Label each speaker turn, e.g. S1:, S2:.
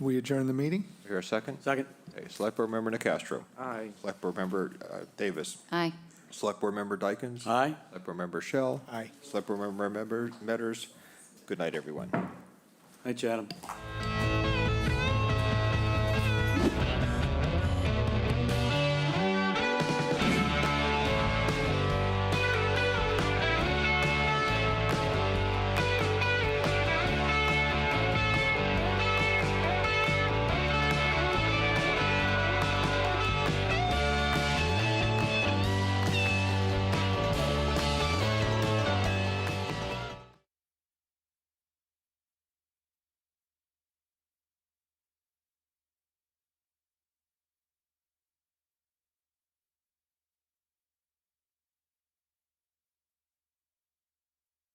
S1: We adjourn the meeting?
S2: Here a second?
S3: Second.
S2: Okay, Select Board Member Nacastro.
S3: Aye.
S2: Select Board Member uh, Davis.
S4: Aye.
S2: Select Board Member Dykens.
S3: Aye.
S2: Select Board Member Shell.
S1: Aye.
S2: Select Board Member Member Metters. Good night, everyone.
S3: Hi, Chatham.